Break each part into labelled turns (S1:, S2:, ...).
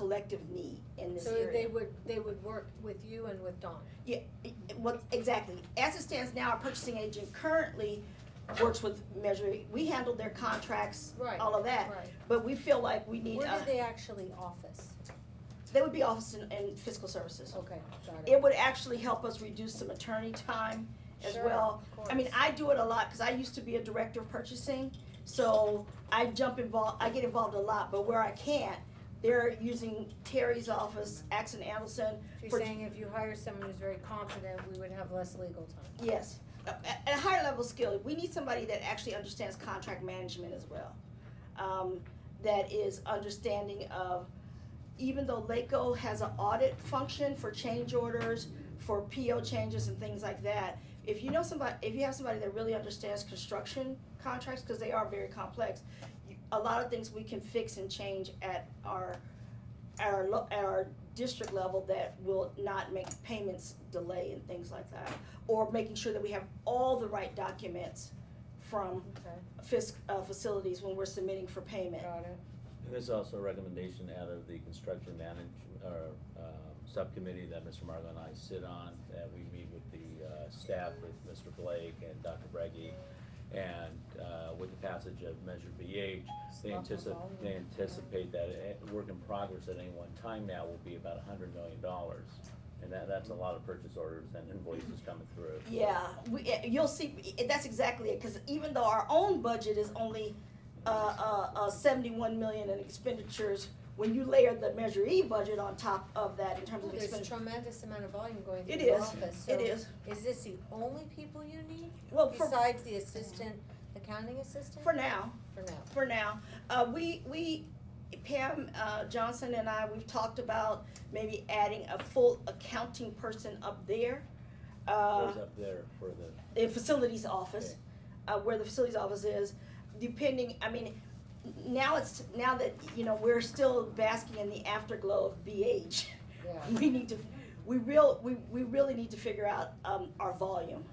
S1: collective need in this
S2: So they
S1: area.
S2: would, they would work with you and with Dawn?
S1: Yeah, it- it- what, exactly. As it stands now, our purchasing agent currently works with Measure E. We handle their contracts,
S2: Right,
S1: all of that.
S2: right.
S1: But we feel like we need,
S2: Where
S1: Oh, uh,
S2: do they actually office?
S1: they would be office and- and fiscal services.
S2: Okay, got it.
S1: It would actually help us reduce some attorney time as
S2: Sure,
S1: well.
S2: of
S1: I mean,
S2: course.
S1: I do it a lot, cause I used to be a director of purchasing, so I jump involved, I get involved a lot, but where I can't, they're using Terry's office, Axon Anderson,
S2: She's
S1: for-
S2: saying if you hire someone who's very confident, we would have less legal time.
S1: Yes, at, at a higher level skill, we need somebody that actually understands contract management as well. Um, that is understanding of, even though LACO has an audit function for change orders, for PO changes and things like that, if you know somebody, if you have somebody that really understands construction contracts, cause they are very complex, you- a lot of things we can fix and change at our, our, lo- at our district level that will not make payments delay and things like that or making sure that we have all the right documents from
S2: Okay,
S1: fisc, uh, facilities when we're submitting for payment.
S2: got it.
S3: And There's also a recommendation out of the construction manage, or, um, subcommittee that Mr. Margo and I sit on, that we meet with the, uh, staff, with Mr. Blake and Dr. Breggy. And, uh, with the passage of Measure BH, they
S2: Lots of
S3: anticipate,
S2: volume.
S3: they anticipate that a- work in progress at any one time now will be about a hundred million dollars. And that, that's a lot of purchase orders and invoices coming through.
S1: Yeah, we, eh, you'll see, eh, that's exactly it, cause even though our own budget is only, uh, uh, uh, seventy-one million in expenditures, when you layer the Measure E budget on top of that in terms of
S2: There's a
S1: expenditure,
S2: tremendous amount of volume going through
S1: it
S2: the
S1: is,
S2: office, so
S1: it is.
S2: is this the only people you need?
S1: Well, for,
S2: Besides the assistant, accounting assistant?
S1: for now,
S2: For now.
S1: for now. Uh, we, we, Pam, uh, Johnson and I, we've talked about maybe adding a full accounting person up there. Uh,
S3: Goes up there for the,
S1: the facilities office, uh, where the facilities office is, depending, I mean, now it's, now that, you know, we're still basking in the afterglow of BH.
S2: Yeah.
S1: We need to, we real, we, we really need to figure out, um, our volume.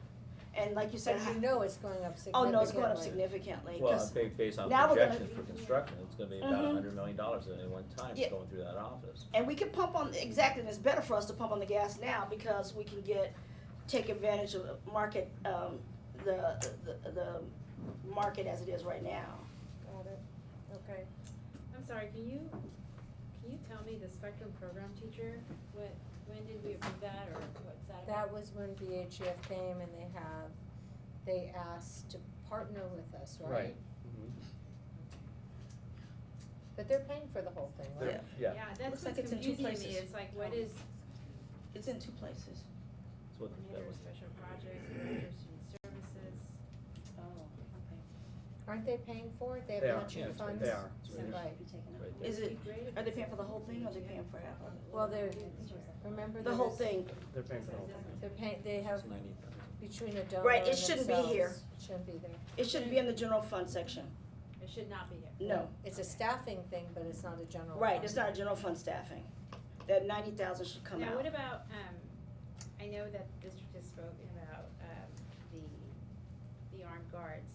S1: And like you said,
S2: But you know it's going up
S1: oh,
S2: significantly.
S1: no, it's going up significantly,
S3: well,
S1: 'cause-
S3: ba- based on
S1: now we're gonna-
S3: projections for construction, it's gonna be about a
S1: Mhm.
S3: hundred million dollars at any one time
S1: Yeah.
S3: going through that office.
S1: and we can pump on, exactly, and it's better for us to pump on the gas now, because we can get, take advantage of the market, um, the, the, the market as it is right now.
S2: Got it, okay.
S4: I'm sorry, can you, can you tell me the spectrum program teacher, what, when did we approve that or what's that about?
S2: That was when BHF came and they have, they asked to partner with us, right?
S5: Right.
S2: But they're paying for the whole thing, right?
S3: They're- Yeah,
S4: Yeah,
S1: Looks
S4: that's
S1: like it's
S4: what's
S1: in two
S4: confusing me,
S1: places.
S4: it's like, what is
S1: It's in two places.
S3: that's what, that
S4: manager of
S3: was
S4: special projects, manager of student services? Oh, okay.
S2: Aren't they paying for it? They have
S5: They are,
S2: matching
S5: yes,
S2: funds?
S5: they are.
S3: It's right here.
S2: Right.
S3: right there.
S1: Is it,
S4: It'd be great if
S1: are they
S4: it's
S1: paying
S4: a-
S1: for the whole thing or are they paying for half of
S2: Well, they're, remember
S1: it?
S2: there
S1: The whole
S2: was-
S1: thing,
S5: They're paying for the whole thing.
S2: They're paying, they have
S3: It's 90,000.
S2: between a donor
S1: Right,
S2: and
S1: it shouldn't be here.
S2: themselves. It shouldn't be there.
S1: it should be in the general fund section,
S4: It should not be here.
S1: no,
S2: It's a staffing thing, but it's not a general.
S1: right,
S2: fund.
S1: it's not a general fund staffing. That ninety thousand should come
S4: Now,
S1: out,
S4: what about, um, I know that the district has spoken about, um, the, the armed guards.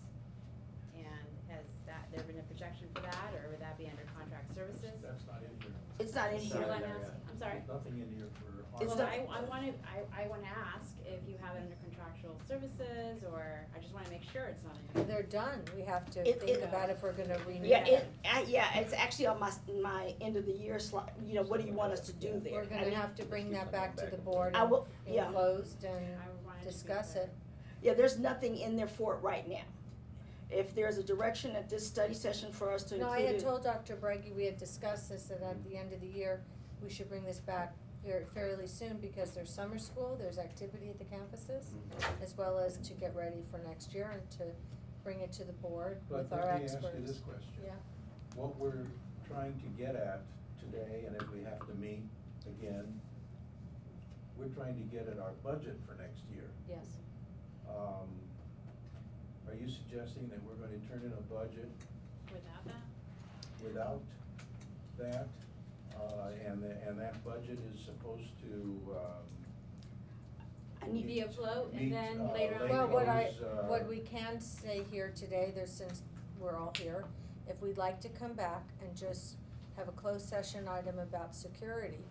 S4: And has that, there been a projection for that or would that be under contract services?
S6: That's not in here.
S1: it's not in
S4: Is
S1: here,
S4: there
S5: Sorry.
S4: one else? I'm sorry.
S6: Nothing in here for.
S1: It's
S4: Well,
S1: not-
S4: I, I wanna, I, I wanna ask if you have it under contractual services, or I just wanna make sure it's not in.
S2: They're done. We have to
S1: It-
S2: think
S1: it-
S2: about if we're gonna renew
S1: yeah,
S2: it.
S1: it, I, yeah, it's actually on my, s- my end of the year slot, you know, what do you want us to do there?
S2: We're
S1: I
S2: gonna
S1: mean,
S2: have to bring that back to the
S3: Back.
S2: board
S1: I
S2: and
S1: will, yeah.
S2: and closed and
S4: I wanted to be
S2: discuss
S4: clear.
S2: it.
S1: Yeah, there's nothing in there for it right now. If there's a direction at this study session for us to
S2: No, I
S1: include
S2: had
S1: it,
S2: told Dr. Breggy, we had discussed this, that at the end of the year, we should bring this back very, fairly soon, because there's summer school, there's activity at the campuses,
S6: Mm-hmm.
S2: as well as to get ready for next year and to bring it to the board
S6: But
S2: with our
S6: let me
S2: experts.
S6: ask you this question.
S2: Yeah.
S6: What we're trying to get at today, and if we have to meet again, we're trying to get at our budget for next year.
S2: Yes,
S6: Um, Are you suggesting that we're gonna turn in a budget
S4: Without that?
S6: without that? Uh, and, the- and that budget is supposed to, um,
S1: I need,
S4: Be afloat, and
S6: Meet,
S4: then
S6: uh,
S4: later on.
S6: Thank
S2: well,
S6: you.
S2: what I,
S6: Is, uh,
S2: what we can say here today, there's, since we're all here, if we'd like to come back and just have a closed session item about security.